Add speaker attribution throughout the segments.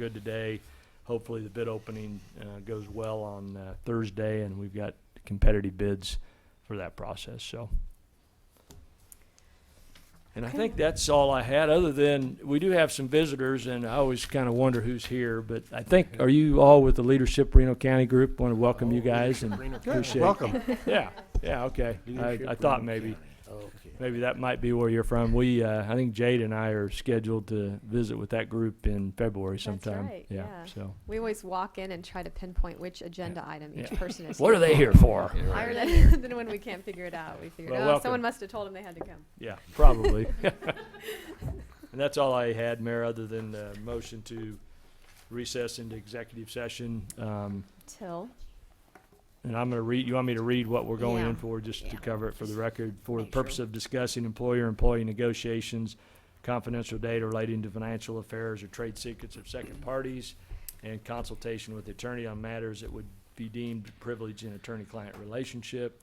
Speaker 1: good today. Hopefully, the bid opening uh, goes well on uh, Thursday, and we've got competitive bids for that process. So, and I
Speaker 2: Okay.
Speaker 1: think that's all I had. Other than we do have some visitors, and I always kind of wonder who's here. But I think are you all with the leadership Reno County group? Want to welcome you guys and appreciate.
Speaker 3: Welcome.
Speaker 1: Yeah, yeah, okay. I, I thought maybe.
Speaker 3: Okay.
Speaker 1: Maybe that might be where you're from. We, uh, I think Jade and I are scheduled to visit with that group in February sometime.
Speaker 2: right, yeah.
Speaker 1: So,
Speaker 2: We always walk in and try to pinpoint which agenda item each
Speaker 1: Yeah.
Speaker 2: person is.
Speaker 1: what are they here for?
Speaker 2: Why are they? Then when we can't figure it out, we figure,
Speaker 1: Well,
Speaker 2: oh,
Speaker 1: welcome.
Speaker 2: someone must have told them they had to come.
Speaker 1: Yeah, probably. and that's all I had, Mayor, other than the motion to recess into executive session. Um,
Speaker 2: Till,
Speaker 1: and I'm going to read. You want me to read what we're going
Speaker 2: Yeah.
Speaker 1: in for, just to
Speaker 2: Yeah.
Speaker 1: cover it for the
Speaker 2: Just
Speaker 1: record, for the
Speaker 2: make sure.
Speaker 1: purpose of discussing employer-employee negotiations, confidential data relating to financial affairs or trade secrets of second parties, and consultation with the attorney on matters that would be deemed privilege in attorney-client relationship.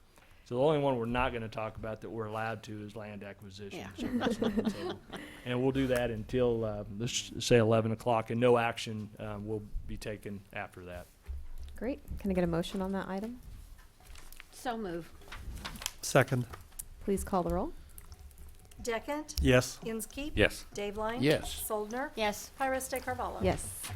Speaker 1: So the only one we're not going to talk about that we're allowed to is land acquisition.
Speaker 2: Yeah.
Speaker 1: So that's not on the table. And we'll do that until, uh, let's say eleven o'clock, and no action, um, will be taken after that.
Speaker 2: great. Can I get a motion on that item?
Speaker 4: So move.
Speaker 3: Second.
Speaker 2: Please call the roll.
Speaker 5: Deckent?
Speaker 3: Yes.
Speaker 5: Inskeep?
Speaker 6: Yes.
Speaker 5: Dave Line?
Speaker 6: Yes.
Speaker 5: Soldner?
Speaker 4: Yes.
Speaker 1: Uh,
Speaker 5: Pires de Carvalho?
Speaker 2: Yes.